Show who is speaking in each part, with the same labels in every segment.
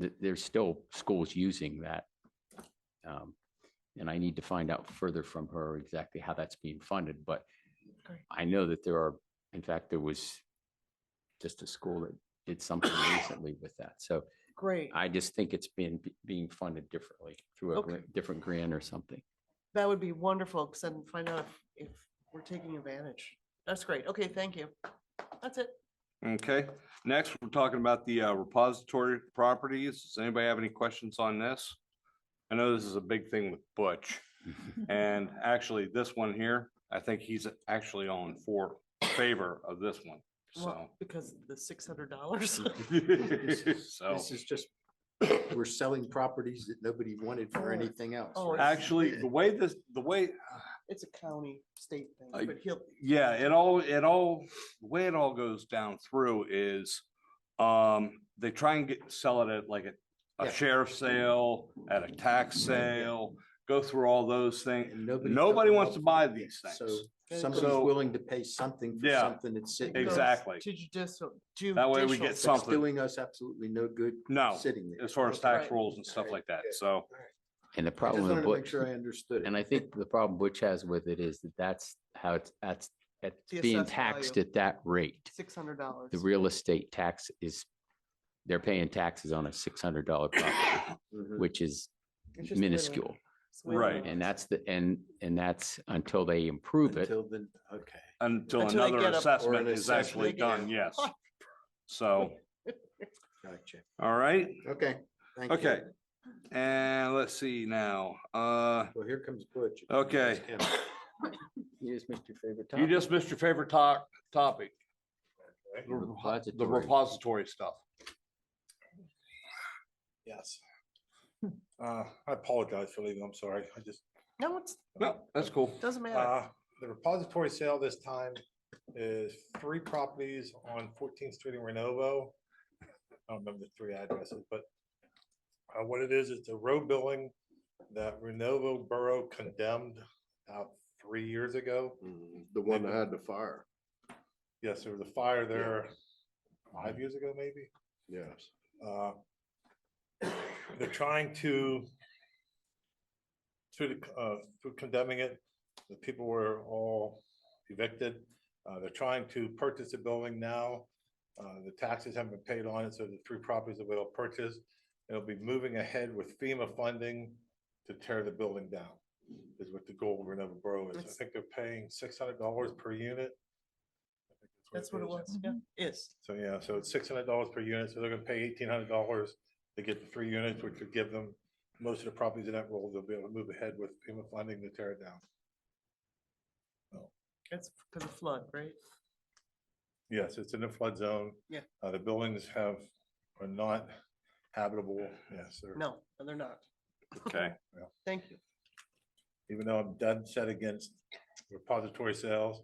Speaker 1: th- there's still schools using that. Um, And I need to find out further from her exactly how that's being funded, but
Speaker 2: Okay.
Speaker 1: I know that there are, in fact, there was just a school that did something recently with that. So
Speaker 2: Great.
Speaker 1: I just think it's been be- being funded differently through a
Speaker 2: Okay.
Speaker 1: gra- different grant or something.
Speaker 2: That would be wonderful, because then find out if, if we're taking advantage. That's great. Okay, thank you. That's it.
Speaker 3: Okay, next, we're talking about the uh, repository properties. Does anybody have any questions on this? I know this is a big thing with Butch, and actually, this one here, I think he's actually on for favor of this one, so.
Speaker 2: Well, because of the six hundred dollars.
Speaker 3: So,
Speaker 4: This is just, we're selling properties that nobody wanted for
Speaker 2: Oh.
Speaker 4: anything else.
Speaker 2: Oh,
Speaker 4: right?
Speaker 3: actually, the way this, the way,
Speaker 2: It's a county state thing,
Speaker 3: I-
Speaker 2: but he'll,
Speaker 3: yeah, it all, it all, the way it all goes down through is, um, they try and get, sell it at like a,
Speaker 4: Yeah.
Speaker 3: a sheriff sale, at a tax sale, go through all those things.
Speaker 4: And nobody.
Speaker 3: Nobody wants to
Speaker 4: nobody-
Speaker 3: buy these
Speaker 4: So
Speaker 3: things.
Speaker 4: somebody's
Speaker 3: So-
Speaker 4: willing to pay something for
Speaker 3: Yeah,
Speaker 4: something that's sitting.
Speaker 2: goes
Speaker 4: there
Speaker 3: Exactly.
Speaker 2: To judicial.
Speaker 3: That way we
Speaker 2: judicial.
Speaker 3: get
Speaker 4: That's
Speaker 3: something.
Speaker 4: doing us absolutely no good
Speaker 3: No,
Speaker 4: sitting there.
Speaker 3: as far as tax
Speaker 2: Right.
Speaker 3: rules and stuff like that.
Speaker 4: Alright.
Speaker 3: So,
Speaker 1: And the
Speaker 4: I just
Speaker 1: problem,
Speaker 4: wanted
Speaker 1: with
Speaker 4: to make
Speaker 1: Butch-
Speaker 4: sure I understood it.
Speaker 1: and I think the problem Butch has with it is that that's how it's, that's, that's
Speaker 2: The
Speaker 1: being
Speaker 2: assessed value.
Speaker 1: taxed at that rate.
Speaker 2: Six hundred dollars.
Speaker 1: The real estate tax is, they're paying taxes on a six hundred dollar property,
Speaker 4: Mhm.
Speaker 1: which is minuscule.
Speaker 3: Right.
Speaker 1: And that's the, and, and that's until they improve it.
Speaker 4: Until then, okay.
Speaker 3: until
Speaker 2: Until they
Speaker 3: another
Speaker 2: get up- or
Speaker 3: assessment
Speaker 4: an
Speaker 3: is
Speaker 4: assessment,
Speaker 3: actually
Speaker 4: yeah.
Speaker 3: done, yes. So,
Speaker 4: Gotcha.
Speaker 3: all right,
Speaker 4: Okay. thank you.
Speaker 3: okay. And let's see now, uh,
Speaker 4: Well, here comes Butch.
Speaker 3: Okay.
Speaker 1: Here's Mr. Favorite
Speaker 3: you just missed your favorite to- topic. The repo- the
Speaker 1: Repository.
Speaker 3: repository stuff.
Speaker 5: Yes. Uh, I apologize for leaving. I'm sorry. I just,
Speaker 2: No, it's,
Speaker 3: No, that's cool.
Speaker 2: doesn't matter.
Speaker 5: uh, the repository sale this time is three properties on Fourteenth Street in Renovo. I don't remember the three addresses, but uh, what it is, it's a road billing that Renovo Borough condemned about three years ago.
Speaker 4: Mm, The one that had the fire.
Speaker 5: Yes, there was a fire there five years ago, maybe.
Speaker 4: Yes.
Speaker 5: uh, They're trying to, through the, uh, through condemning it, the people were all evicted. Uh, they're trying to purchase the building now. Uh, the taxes haven't been paid on it, so the three properties that we'll purchase, it'll be moving ahead with FEMA funding to tear the building down. Is what the goal of Renova Borough is. I
Speaker 2: That's-
Speaker 5: think they're paying six hundred dollars per unit. I think
Speaker 2: That's what it
Speaker 5: is.
Speaker 2: was. Yeah, is.
Speaker 5: So, yeah, so it's six hundred dollars per unit, so they're gonna pay eighteen hundred dollars to get the three units, which would give them most of the properties in that role, they'll be able to move ahead with FEMA funding to tear it down.
Speaker 2: That's because of flood, right?
Speaker 5: Yes, it's in a flood zone.
Speaker 2: Yeah.
Speaker 5: Uh, the buildings have, are not habitable, yes, they're-
Speaker 2: No, they're not.
Speaker 3: Okay.
Speaker 2: Thank you.
Speaker 5: even though I'm dead set against repository sales.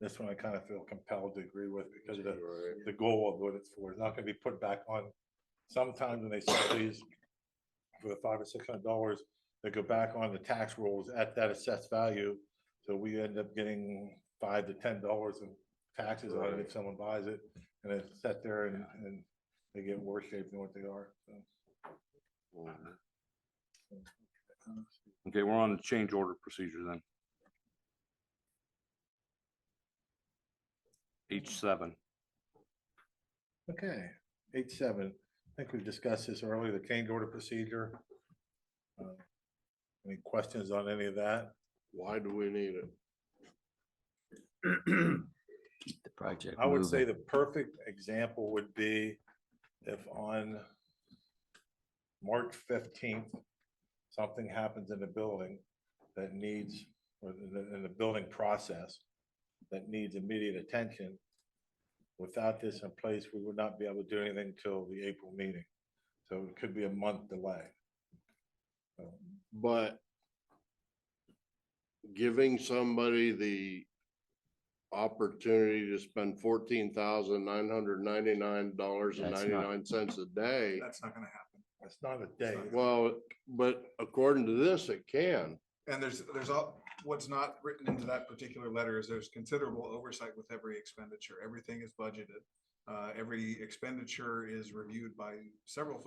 Speaker 5: This one I kind of feel compelled to agree with because of the the goal of what it's for, it's not gonna be put back on. Sometimes when they sell these for the five or six hundred dollars, they go back on the tax rolls at that assessed value. So we end up getting five to ten dollars in taxes on it if someone buys it, and it's set there and, and they get in worse shape than what they are, so.
Speaker 3: Okay, we're on the change order procedure then. H seven.
Speaker 5: Okay, eight seven, I think we discussed this earlier, the change order procedure. Uh, Any questions on any of that?
Speaker 4: Why do we need it?
Speaker 1: Keep the project.
Speaker 5: I would
Speaker 1: moving.
Speaker 5: say the perfect example would be if on March fifteenth, something happens in the building that needs, or in the, in the building process that needs immediate attention. Without this in place, we would not be able to do anything till the April meeting. So it could be a month delay. So,
Speaker 6: But giving somebody the opportunity to spend fourteen thousand nine hundred ninety-nine dollars and
Speaker 1: That's not-
Speaker 6: ninety-nine cents a day.
Speaker 7: That's not gonna happen.
Speaker 5: It's not a day.
Speaker 6: Well, but according to this, it can.
Speaker 7: And there's, there's all, what's not written into that particular letter is there's considerable oversight with every expenditure. Everything is budgeted. Uh, every expenditure is reviewed by several folks